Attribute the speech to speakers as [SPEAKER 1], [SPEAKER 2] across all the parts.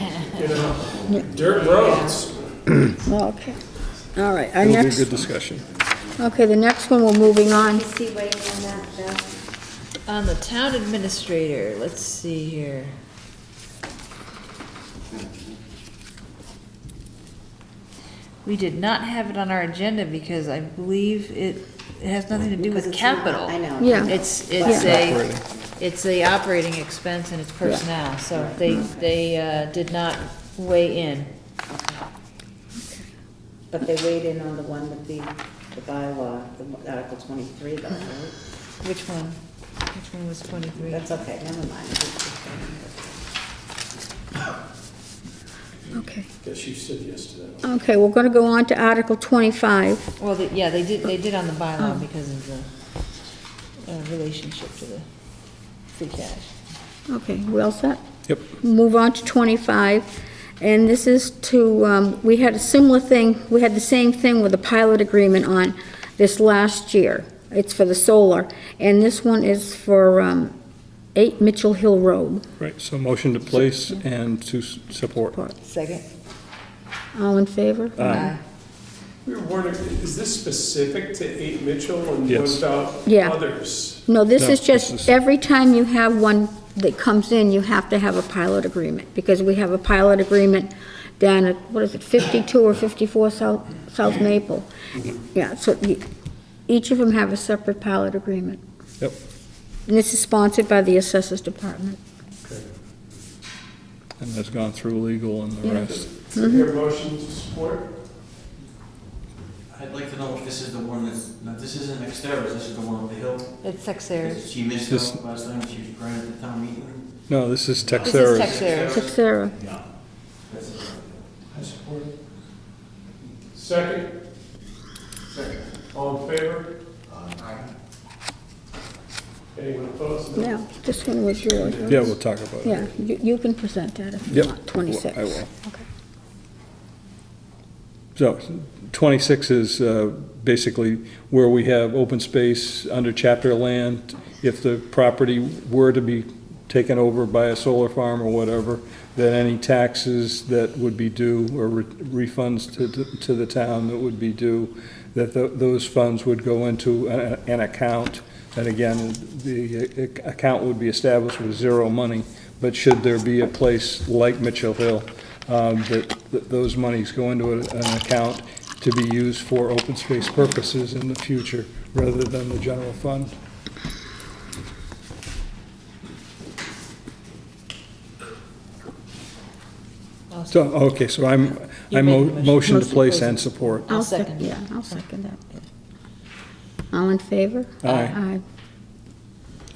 [SPEAKER 1] you know, dirt roads.
[SPEAKER 2] Oh, Okay, all right, our
[SPEAKER 3] It'll be a
[SPEAKER 2] next,
[SPEAKER 3] good discussion.
[SPEAKER 2] okay, the next one, we're moving on.
[SPEAKER 4] See waiting on that, Jeff.
[SPEAKER 5] On the town administrator, let's see here. We did not have it on our agenda because I believe it, it has nothing to do
[SPEAKER 4] Because
[SPEAKER 5] with
[SPEAKER 4] it's not-
[SPEAKER 5] capital.
[SPEAKER 4] I know.
[SPEAKER 2] Yeah.
[SPEAKER 5] It's, it's a,
[SPEAKER 3] Operating.
[SPEAKER 5] it's a operating expense and it's personnel, so they, they uh, did not weigh in.
[SPEAKER 4] But they weighed in on the one with the, the bylaw, the Article twenty-three though, right?
[SPEAKER 5] Which one? Which one was twenty-three?
[SPEAKER 4] That's okay, never mind.
[SPEAKER 2] Okay,
[SPEAKER 1] Guess you said yes to that.
[SPEAKER 2] okay, we're gonna go on to Article twenty-five.
[SPEAKER 5] Well, they- yeah, they did, they did on the
[SPEAKER 2] Hmm.
[SPEAKER 5] bylaw because of the uh, relationship to the free cash.
[SPEAKER 2] Okay, we all set?
[SPEAKER 3] Yep.
[SPEAKER 2] Move on to twenty-five, and this is to, um, we had a similar thing, we had the same thing with the pilot agreement on this last year. It's for the solar, and this one is for, um, eight Mitchell Hill Road.
[SPEAKER 3] Right, so motion to place and to s- support.
[SPEAKER 5] Second?
[SPEAKER 2] All in favor?
[SPEAKER 5] Uh,
[SPEAKER 3] Aye.
[SPEAKER 1] We were wondering, is this specific to 8 Mitchell and what
[SPEAKER 3] Yes.
[SPEAKER 1] about
[SPEAKER 2] Yeah.
[SPEAKER 1] others?
[SPEAKER 2] No, this
[SPEAKER 3] No,
[SPEAKER 2] is
[SPEAKER 3] this
[SPEAKER 2] just,
[SPEAKER 3] is-
[SPEAKER 2] every time you have one that comes in, you have to have a pilot agreement, because we have a pilot agreement down at, what is it, 52 or 54 South, South Maple.
[SPEAKER 3] Mm-hmm.
[SPEAKER 2] Yeah, so you- each of them have a separate pilot agreement.
[SPEAKER 3] Yep.
[SPEAKER 2] And this is sponsored by the Assessors Department.
[SPEAKER 3] And that's gone through legal and the rest.
[SPEAKER 1] Is there a motion to support?
[SPEAKER 6] I'd like to know if this is the one that's, no, this isn't Exteris, this is the one up the hill.
[SPEAKER 5] It's Texera.
[SPEAKER 6] She missed
[SPEAKER 3] This-
[SPEAKER 6] out last time, she was granted the town meeting.
[SPEAKER 3] No, this is
[SPEAKER 5] This is
[SPEAKER 3] Texeris.
[SPEAKER 5] Texera.
[SPEAKER 2] Texera.
[SPEAKER 6] That's it.
[SPEAKER 1] I support. Second? Second. All in favor? Aye. Anyone opposed?
[SPEAKER 2] Now, this one was yours, right?
[SPEAKER 3] Yeah, we'll talk about it.
[SPEAKER 2] Yeah, you you can present that if you
[SPEAKER 3] Yep.
[SPEAKER 2] want, 26.
[SPEAKER 3] I will.
[SPEAKER 2] Okay.
[SPEAKER 3] So 26 is uh, basically where we have open space under chapter land. If the property were to be taken over by a solar farm or whatever, then any taxes that would be due or re- refunds to, to the town that would be due, that tho- those funds would go into a- an account. And again, the uh, account would be established with zero money, but should there be a place like Mitchell Hill um, that, that those monies go into a- an account to be used for open space purposes in the future, rather than the general fund. So, okay, so I'm,
[SPEAKER 5] You
[SPEAKER 3] I'm
[SPEAKER 5] made
[SPEAKER 3] mo-
[SPEAKER 5] the motion.
[SPEAKER 3] motion to
[SPEAKER 5] Motion to
[SPEAKER 3] place
[SPEAKER 5] place.
[SPEAKER 3] and support.
[SPEAKER 5] I'll second it.
[SPEAKER 2] Yeah, I'll second that. All in favor?
[SPEAKER 3] Aye.
[SPEAKER 2] Aye.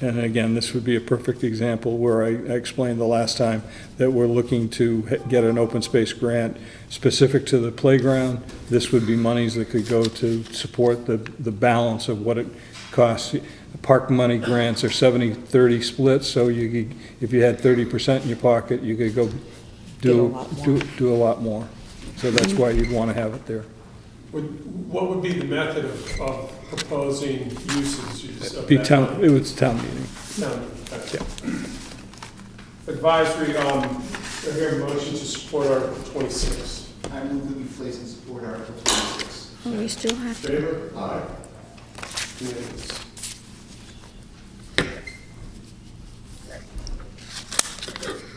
[SPEAKER 3] And again, this would be a perfect example where I I explained the last time that we're looking to h- get an open space grant specific to the playground. This would be monies that could go to support the, the balance of what it costs. Park money grants are 70-30 splits, so you could, if you had 30% in your pocket, you could go
[SPEAKER 5] Get a
[SPEAKER 3] do,
[SPEAKER 5] lot more.
[SPEAKER 3] do, do a lot more. So that's why you'd want to have it there.
[SPEAKER 1] Would- What would be the method of, of proposing uses of that?
[SPEAKER 3] Be town, it was town meeting.
[SPEAKER 1] Town, okay. Advisory, um, I hear a motion to support Article 26.
[SPEAKER 7] I move that we place and support Article 26.
[SPEAKER 2] Oh, we still have to.
[SPEAKER 1] Favor? Aye. Unanimous.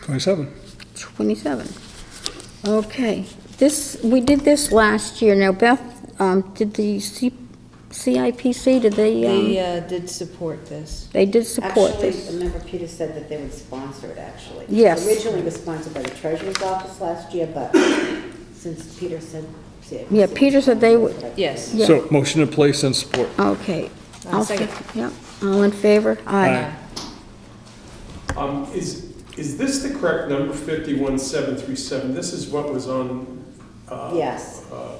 [SPEAKER 3] Twenty-seven.
[SPEAKER 2] 27. Okay, this, we did this last year. Now Beth, um, did the C- CIPC, did
[SPEAKER 5] They
[SPEAKER 2] they, um,
[SPEAKER 5] uh, did support this.
[SPEAKER 2] they did support
[SPEAKER 4] Actually,
[SPEAKER 2] this?
[SPEAKER 4] remember Peter said that they would sponsor it, actually.
[SPEAKER 2] Yes.
[SPEAKER 4] Originally it was sponsored by the treasurer's office last year, but since Peter said.
[SPEAKER 2] Yeah, Peter said they would-
[SPEAKER 5] Yes.
[SPEAKER 2] Yeah.
[SPEAKER 3] So motion to place and support.
[SPEAKER 2] Okay.
[SPEAKER 5] I'll
[SPEAKER 2] I'll
[SPEAKER 5] um, uh, second.
[SPEAKER 2] sec- Yep, all in favor? Aye.
[SPEAKER 1] Um, is, is this the correct number, 51737? This is what was on, uh,
[SPEAKER 4] Yes.
[SPEAKER 1] uh,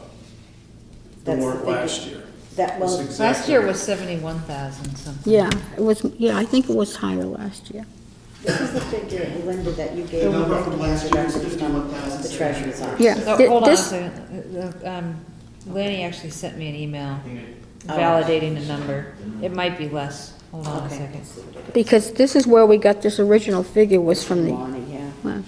[SPEAKER 1] The
[SPEAKER 4] That's
[SPEAKER 1] warrant
[SPEAKER 4] the-
[SPEAKER 1] last year.
[SPEAKER 4] That,
[SPEAKER 1] This
[SPEAKER 4] well,
[SPEAKER 1] exact
[SPEAKER 5] Last year
[SPEAKER 1] number.
[SPEAKER 5] was seventy-one thousand something.
[SPEAKER 2] Yeah, it was, yeah, I think it was higher last year.
[SPEAKER 4] this is the figure, Linda, that you gave.
[SPEAKER 7] The
[SPEAKER 4] me
[SPEAKER 7] number from last year is
[SPEAKER 4] the The
[SPEAKER 7] 51,737.
[SPEAKER 4] treasurer's office.
[SPEAKER 2] Yeah.
[SPEAKER 5] So,
[SPEAKER 2] Thi-
[SPEAKER 5] Oh, hold on a
[SPEAKER 2] this-
[SPEAKER 5] second. Uh, uh, um, Lanny actually sent me an email
[SPEAKER 6] I think it-
[SPEAKER 5] validating the number. It might be less. Hold on a
[SPEAKER 4] Okay.
[SPEAKER 5] second.
[SPEAKER 2] Because this is where we got this original figure was from the,
[SPEAKER 4] Lonnie, yeah.
[SPEAKER 2] well,